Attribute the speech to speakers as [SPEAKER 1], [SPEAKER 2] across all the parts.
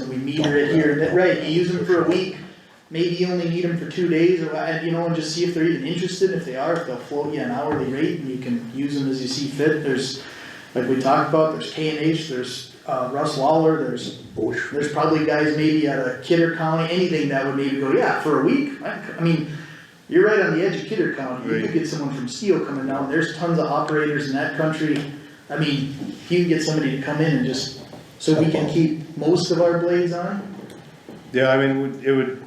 [SPEAKER 1] need right here, that, right, you use them for a week, maybe you only need them for two days, or, what, you know, and just see if they're even interested, if they are, if they'll float you an hourly rate, and you can use them as you see fit, there's, like we talked about, there's K and H, there's, uh, Russ Lawler, there's, there's probably guys maybe out of Kidder County, anything that would maybe go, yeah, for a week, I, I mean, you're right on the edge of Kidder County, you could
[SPEAKER 2] Right.
[SPEAKER 1] get someone from Steele coming down, there's tons of operators in that country, I mean, you can get somebody to come in and just so we can keep most of our blades on?
[SPEAKER 2] Yeah, I mean, it would- it would,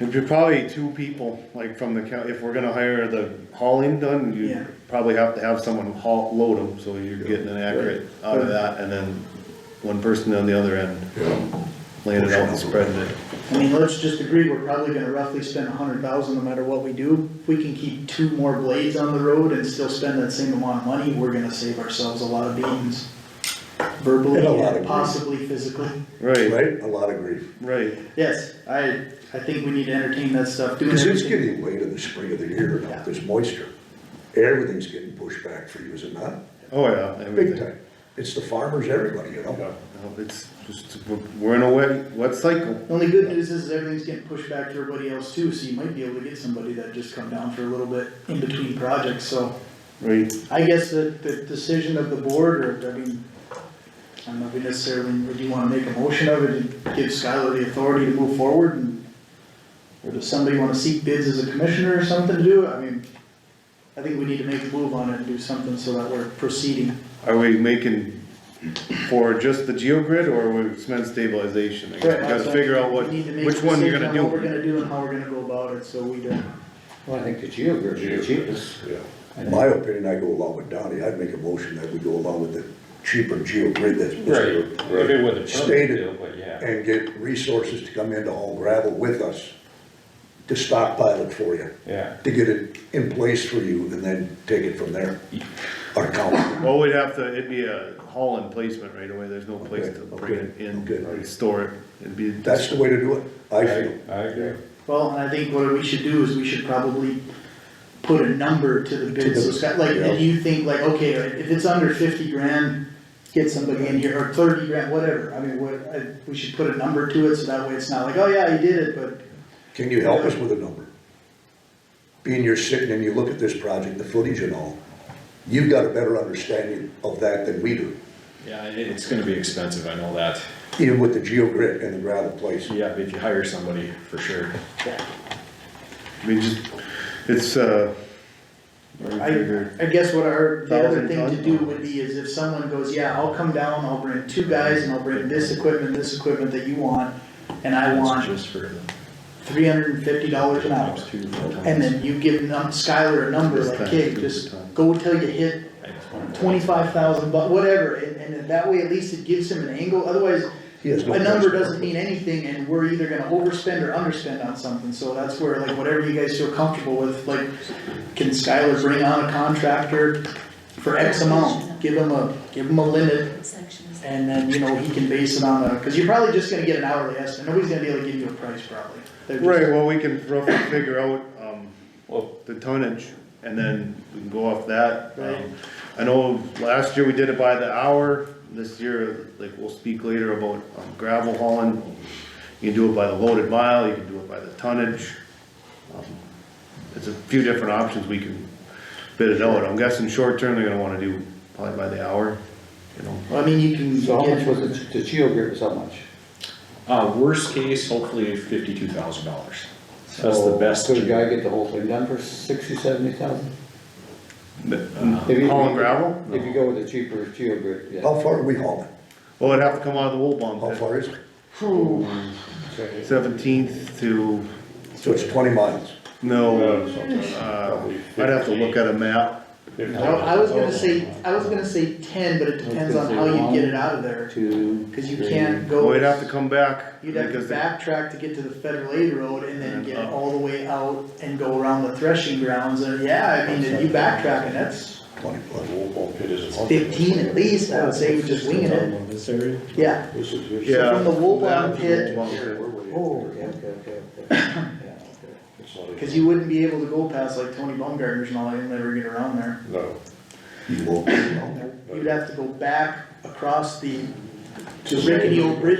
[SPEAKER 2] it'd be probably two people, like from the county, if we're gonna hire the hauling done,
[SPEAKER 1] Yeah.
[SPEAKER 2] you'd probably have to have someone haul, load them, so you're getting an accurate out of that, and then one person on the other end
[SPEAKER 3] Yeah,
[SPEAKER 2] laying it out and spreading it.
[SPEAKER 1] I mean, let's just agree, we're probably gonna roughly spend a hundred thousand no matter what we do. If we can keep two more blades on the road and still spend that same amount of money, we're gonna save ourselves a lot of beans. Verbally
[SPEAKER 3] And a lot of
[SPEAKER 1] and
[SPEAKER 3] grief.
[SPEAKER 1] possibly physically.
[SPEAKER 2] Right,
[SPEAKER 3] right, a lot of grief,
[SPEAKER 2] right,
[SPEAKER 1] Yes, I, I think we need to entertain that stuff, doing
[SPEAKER 3] because it's
[SPEAKER 1] everything.
[SPEAKER 3] getting late in the spring of the year now,
[SPEAKER 1] Yeah.
[SPEAKER 3] there's moisture. Everything's getting pushed back for you, is it not?
[SPEAKER 2] oh yeah.
[SPEAKER 3] Big
[SPEAKER 2] everything.
[SPEAKER 3] time, it's the farmers, everybody, you know?
[SPEAKER 2] Yeah, no, It's just, we're in a wet, wet cycle.
[SPEAKER 1] The only good news is everything's getting pushed back to everybody else too, so you might be able to get somebody that just come down for a little bit in between projects, so.
[SPEAKER 2] Right,
[SPEAKER 1] I guess the, the decision of the board, or, I mean, I don't know if we necessarily, would you wanna make a motion of it, and give Skylar the authority to move forward, and, or does somebody wanna seek bids as a commissioner or something to do, I mean, I think we need to make a move on it and do something so that we're proceeding.
[SPEAKER 2] are we making for just the geo grid or we spend stabilization? I guess we Gotta figure out what,
[SPEAKER 1] We need to make a
[SPEAKER 2] which one you're
[SPEAKER 1] decision
[SPEAKER 2] gonna
[SPEAKER 1] on What we're
[SPEAKER 2] do.
[SPEAKER 1] gonna do and how we're gonna go about it, so we don't,
[SPEAKER 4] Well, I think the geo grid is the cheapest.
[SPEAKER 3] In my opinion, I go along with Donnie, I'd make a motion that we go along with the cheaper geo grid that's.
[SPEAKER 5] If it was a permit
[SPEAKER 3] Stated.
[SPEAKER 5] deal, but yeah.
[SPEAKER 3] And get resources to come in to haul gravel with us, to stockpile it for you,
[SPEAKER 5] Yeah,
[SPEAKER 3] to get it in place for you, and then take it from there. Our county,
[SPEAKER 2] Well, we'd have to, it'd be a haul and placement right away, there's no place to
[SPEAKER 3] Okay,
[SPEAKER 2] bring it in
[SPEAKER 3] okay.
[SPEAKER 2] and store it. It'd be,
[SPEAKER 3] that's the way to do it, I
[SPEAKER 5] I,
[SPEAKER 3] feel.
[SPEAKER 5] I agree.
[SPEAKER 1] well, and I think what we should do is we should probably put a number to the bid, so Scott, like,
[SPEAKER 3] Yeah.
[SPEAKER 1] if you think like, okay, if it's under fifty grand, get somebody in here, or thirty grand, whatever, I mean, what, I, we should put a number to it, so that way it's not like, oh yeah, you did it, but.
[SPEAKER 3] Can you help us with a number? Being you're sitting and you look at this project, the footage and all, you've got a better understanding of that than we do,
[SPEAKER 6] Yeah, it- it's gonna be expensive, I know that.
[SPEAKER 3] even with the geo grid and the gravel place.
[SPEAKER 6] Yeah, if you hire somebody, for sure.
[SPEAKER 2] I mean, just, it's, uh. I figure-
[SPEAKER 1] I, I guess what our, the other
[SPEAKER 2] Thousand
[SPEAKER 1] thing to
[SPEAKER 2] ton.
[SPEAKER 1] do would be is if someone goes, yeah, I'll come down, I'll bring two guys, and I'll bring this equipment, this equipment that you want, and I
[SPEAKER 6] It's
[SPEAKER 1] want
[SPEAKER 6] Just for the.
[SPEAKER 1] three hundred and fifty dollars an hour.
[SPEAKER 6] Two times.
[SPEAKER 1] And then you give num- Skylar a number,
[SPEAKER 2] This
[SPEAKER 1] like,
[SPEAKER 2] time,
[SPEAKER 1] hey,
[SPEAKER 2] two
[SPEAKER 1] just
[SPEAKER 2] times.
[SPEAKER 1] go till you hit twenty-five thousand, but whatever, and, and then that way at least it gives him an angle, otherwise,
[SPEAKER 3] He has no
[SPEAKER 1] a number
[SPEAKER 3] place.
[SPEAKER 1] doesn't mean anything, and we're either gonna overspend or underspend on something, so that's where, like, whatever you guys feel comfortable with, like, can Skylar bring on a contractor for X amount, give him a, give him a limit,
[SPEAKER 7] sections.
[SPEAKER 1] and then, you know, he can base it on a, cause you're probably just gonna get an hourly estimate, nobody's gonna be able to give you a price probably. They're just-
[SPEAKER 2] Right, well, we can roughly figure out, um,
[SPEAKER 5] Well,
[SPEAKER 2] the tonnage, and then we can go off that. Um,
[SPEAKER 1] Right.
[SPEAKER 2] I know last year we did it by the hour, this year, like, we'll speak later about um, gravel hauling. You can do it by the loaded mile, you can do it by the tonnage. Um, There's a few different options we can bid it out, I'm guessing short term, they're gonna wanna do probably by the hour, you know.
[SPEAKER 1] Well, I mean, you can.
[SPEAKER 4] So how
[SPEAKER 1] get-
[SPEAKER 4] much was it, the geo grid was how much?
[SPEAKER 6] Uh, worst case, hopefully fifty-two thousand dollars. That's
[SPEAKER 4] So
[SPEAKER 6] the best.
[SPEAKER 4] Could a guy get the whole thing done for sixty, seventy thousand?
[SPEAKER 6] Uh,
[SPEAKER 4] If you-
[SPEAKER 2] Hauling gravel?
[SPEAKER 4] If you go with the cheaper geo grid, yeah.
[SPEAKER 3] How far are we hauling?
[SPEAKER 2] Well, it'd have to come out of the wool
[SPEAKER 3] How
[SPEAKER 2] bomb
[SPEAKER 3] far is it?
[SPEAKER 2] pit, seventeenth to,
[SPEAKER 3] So it's twenty miles.
[SPEAKER 2] no,
[SPEAKER 5] uh, something,
[SPEAKER 2] uh,
[SPEAKER 5] probably
[SPEAKER 2] I'd have to look at a map.
[SPEAKER 5] fifty.
[SPEAKER 1] I, I was gonna say, I was gonna say ten, but it depends on how you get it out of there,
[SPEAKER 4] Two,
[SPEAKER 1] cause you
[SPEAKER 4] three.
[SPEAKER 1] can't go.
[SPEAKER 2] Well, we'd have to come back.
[SPEAKER 1] You'd have to
[SPEAKER 2] because they-
[SPEAKER 1] backtrack to get to the federal aid road and then get
[SPEAKER 2] And up.
[SPEAKER 1] all the way out and go around the threshing grounds, and yeah, I mean, if you backtracking, that's
[SPEAKER 3] Twenty plus.
[SPEAKER 1] fifteen at least, I would say, you're just winging it,
[SPEAKER 5] This area?
[SPEAKER 1] yeah.
[SPEAKER 5] This is your.
[SPEAKER 2] Yeah.
[SPEAKER 1] From the wool
[SPEAKER 2] Down
[SPEAKER 1] bomb
[SPEAKER 2] to
[SPEAKER 1] pit,
[SPEAKER 2] the wool
[SPEAKER 4] Oh, okay, okay, okay, okay. Yeah, okay.
[SPEAKER 1] cause you wouldn't be able to go past like Tony Baumgartner's and all, that, you'll never get around there.
[SPEAKER 5] No.
[SPEAKER 3] You won't be down there.
[SPEAKER 1] You'd have to go back across the rickety old bridge